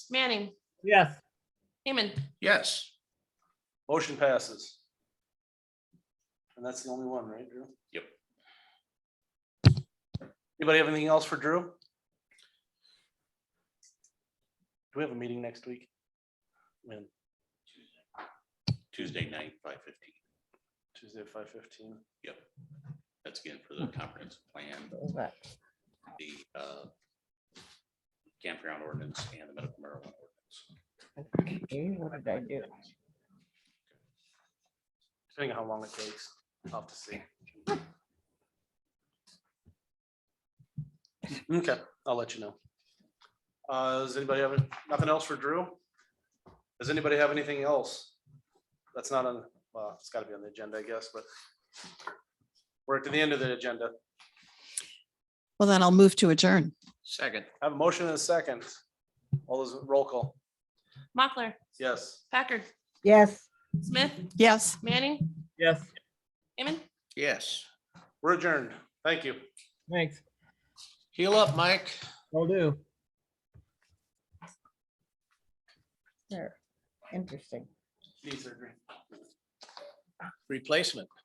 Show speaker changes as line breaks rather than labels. Manning,
Yes.
Heeman,
Yes,
Motion passes. And that's the only one, right, Drew?
Yep.
Anybody have anything else for Drew? Do we have a meeting next week? Man,
Tuesday night, five fifteen.
Tuesday at five fifteen.
Yep. That's again for the comprehensive plan, the uh, campground ordinance and the medical marijuana ordinance.
Okay, What did I do?
Depending on how long it takes, I'll have to see. Okay, I'll let you know. Uh, does anybody have, nothing else for Drew? Does anybody have anything else? That's not on, well, it's gotta be on the agenda, I guess, but we're to the end of the agenda.
Well, then I'll move to adjourn.
Second.
I Have a motion and a second. All those roll call.
Mochler,
Yes.
Packard,
Yes.
Smith,
Yes.
Manning,
Yes.
Heeman.
Yes.
We're adjourned. Thank you.
Thanks.
Heal up, Mike.
Will do. Sure. Interesting.
These are great.
Replacement.